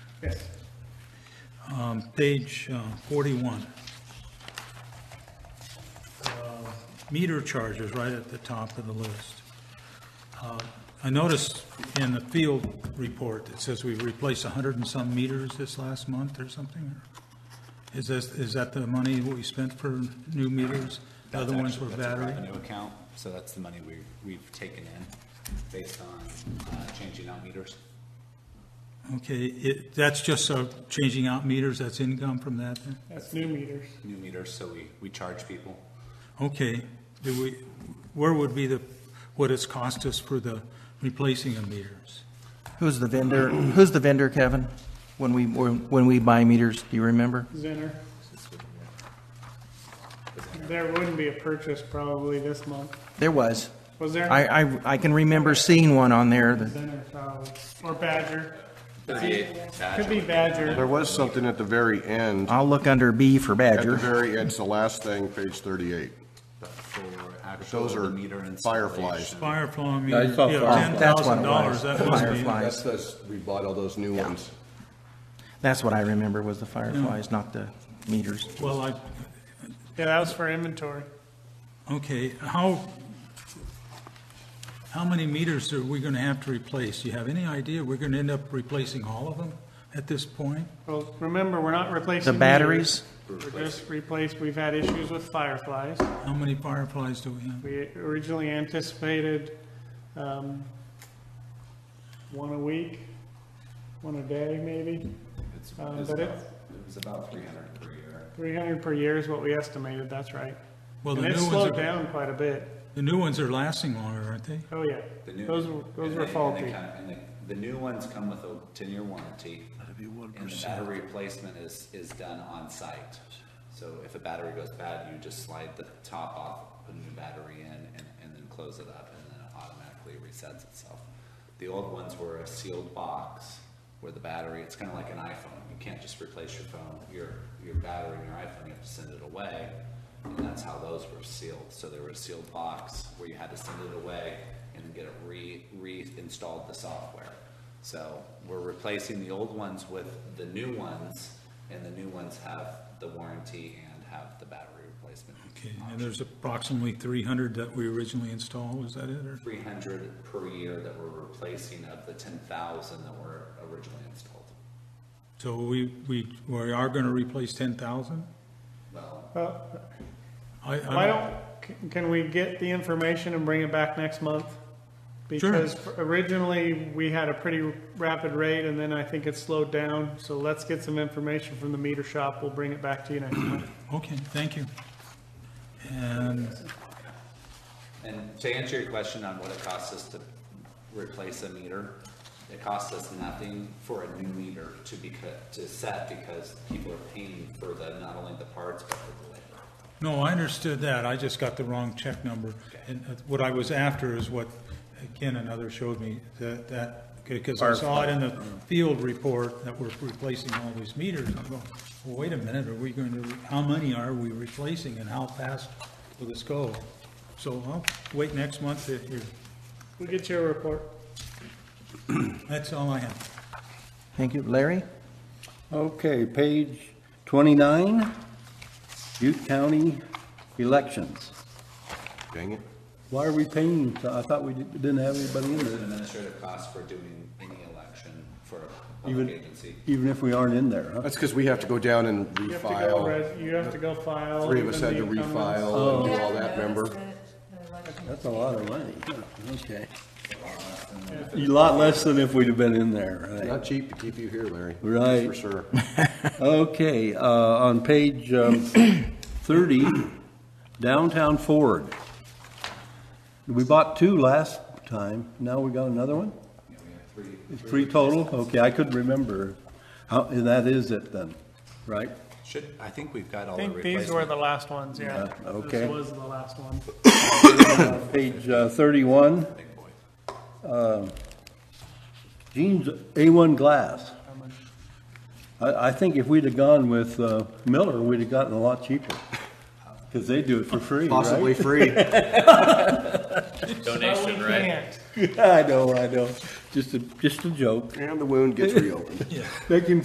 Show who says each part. Speaker 1: Yes.
Speaker 2: Um, Page uh, 41. Uh, Meter charges right at the top of the list. Uh, I noticed in the field report, it says we replaced 100 and some meters this last month or something. Is this, is that the money we spent for new meters? The
Speaker 3: That's
Speaker 2: other ones were
Speaker 3: actually-
Speaker 2: battery?
Speaker 3: That's a revenue account, so that's the money we, we've taken in based on uh, changing out meters.
Speaker 2: Okay, it- that's just uh, changing out meters, that's income from that then?
Speaker 1: That's new meters.
Speaker 3: New meters, so we, we charge people.
Speaker 2: Okay, do we, where would be the, what it's cost us for the replacing of meters?
Speaker 4: Who's the vendor, who's the vendor, Kevin? When we, when when we buy meters, do you remember?
Speaker 1: Zinner. There wouldn't be a purchase probably this month.
Speaker 4: There was.
Speaker 1: Was there?
Speaker 4: I, I, I can remember seeing one on there that,
Speaker 1: Zinner probably, or Badger.
Speaker 3: Thirty-eight
Speaker 1: Could be
Speaker 3: badge.
Speaker 1: Badger.
Speaker 5: There was something at the very end.
Speaker 4: I'll look under B for
Speaker 5: At the
Speaker 4: Badger.
Speaker 5: very, it's the last thing, page 38.
Speaker 3: But for actual,
Speaker 5: Those
Speaker 3: the
Speaker 5: are
Speaker 3: meter
Speaker 5: fireflies.
Speaker 3: installation.
Speaker 2: Firefly
Speaker 6: I
Speaker 2: meter,
Speaker 6: saw
Speaker 2: yeah,
Speaker 6: Firefly.
Speaker 4: That's what it
Speaker 2: $10,000,
Speaker 4: was.
Speaker 2: that must be.
Speaker 4: Firefly.
Speaker 5: That's, that's, we bought all those new ones.
Speaker 4: That's what I remember was the fireflies, not the meters.
Speaker 2: Well, I,
Speaker 1: Yeah, that was for inventory.
Speaker 2: okay, how, how many meters are we gonna have to replace? Do you have any idea? We're gonna end up replacing all of them at this point?
Speaker 1: Well, remember, we're not replacing.
Speaker 4: The batteries,
Speaker 1: meters. We're just replaced, we've had issues with fireflies.
Speaker 2: How many fireflies do we have?
Speaker 1: We originally anticipated, um, one a week, one a day maybe.
Speaker 3: It's-
Speaker 1: Um,
Speaker 3: it's
Speaker 1: but it-
Speaker 3: about- It was about three hundred per year.
Speaker 1: Three hundred per year is what we estimated, that's right.
Speaker 2: Well,
Speaker 1: And
Speaker 2: the
Speaker 1: it
Speaker 2: new ones,
Speaker 1: slowed
Speaker 2: are-
Speaker 1: down quite a bit.
Speaker 2: the new ones are lasting longer, aren't they?
Speaker 1: Oh, yeah.
Speaker 3: The new-
Speaker 1: Those were,
Speaker 3: and
Speaker 1: those
Speaker 3: they-
Speaker 1: were
Speaker 3: and they
Speaker 1: faulty.
Speaker 3: kinda- And the, the new ones come with a ten-year warranty. And the battery replacement is, is done on-site. So if a battery goes bad, you just slide the top off, put a new battery in, and, and then close it up, and then it automatically resets itself. The old ones were a sealed box where the battery, it's kinda like an iPhone. You can't just replace your phone, your, your battery in your iPhone, you have to send it away. And that's how those were sealed. So they were a sealed box where you had to send it away and then get it re, reinstalled the software. So we're replacing the old ones with the new ones, and the new ones have the warranty and have the battery replacement.
Speaker 2: Okay, and there's approximately 300 that we originally installed, is that it, or?
Speaker 3: Three hundred per year that we're replacing of the ten thousand that were originally installed.
Speaker 2: So we, we, we are gonna replace ten thousand?
Speaker 3: Well,
Speaker 1: Uh,
Speaker 2: I,
Speaker 1: Why
Speaker 2: I,
Speaker 1: don't, can- can we get the information and bring it back next month? Because originally, we had a pretty rapid rate, and then I think it slowed down. So let's get some information from the meter shop. We'll bring it back to you next month.
Speaker 2: okay, thank you. And,
Speaker 3: and to answer your question on what it costs us to replace a meter, it costs us nothing for a new meter to be, cut- to set because people are paying for the, not only the parts, but for the labor.
Speaker 2: no, I understood that, I just got the wrong check number. And uh, what I was after is what Ken and others showed me, that, that, because I saw it in the field report that we're replacing all these meters. I'm going, well, wait a minute, are we going to, how many are we replacing and how fast will this go? So I'll wait next month to hear.
Speaker 1: We'll get you a report.
Speaker 2: That's all I have.
Speaker 4: thank you. Larry?
Speaker 7: Okay, page 29, Butte County elections.
Speaker 5: Dang it.
Speaker 7: Why are we paying, I thought we didn't have anybody in
Speaker 3: There's an
Speaker 7: there,
Speaker 3: administrative cost for doing any election for a public
Speaker 7: even,
Speaker 3: agency.
Speaker 7: even if we aren't in there, huh?
Speaker 5: That's because we have to go down and
Speaker 1: You have to go,
Speaker 5: refile.
Speaker 1: res- Oh. you have to go file.
Speaker 5: Three of us
Speaker 1: even
Speaker 5: had to
Speaker 1: the incumbents.
Speaker 5: refile and do all that, remember?
Speaker 7: That's a lot of money, yeah, okay. A lot less than if we'd have been in there, right?
Speaker 5: Not cheap to keep you here, Larry. That's
Speaker 7: Right.
Speaker 5: For sure.
Speaker 7: Okay, uh, on page um, 30, downtown Ford. We bought two last time, now we got another one? It's Three total? Okay, I couldn't remember. How, and that is it then, right?
Speaker 3: Should, I think we've got all
Speaker 1: I
Speaker 3: the
Speaker 1: think these were
Speaker 3: replacement.
Speaker 1: the last ones, yeah.
Speaker 7: Yeah, okay.
Speaker 1: This was the last one.
Speaker 7: Page uh, 31. um, Jeans A1 glass. I, I think if we'd have gone with uh, Miller, we'd have gotten a lot cheaper, because they do it for free, right?
Speaker 5: Possibly free.
Speaker 1: Donation, right?
Speaker 7: I know, I know. Just a, just a joke.
Speaker 5: And the wound gets reopened.
Speaker 7: Make him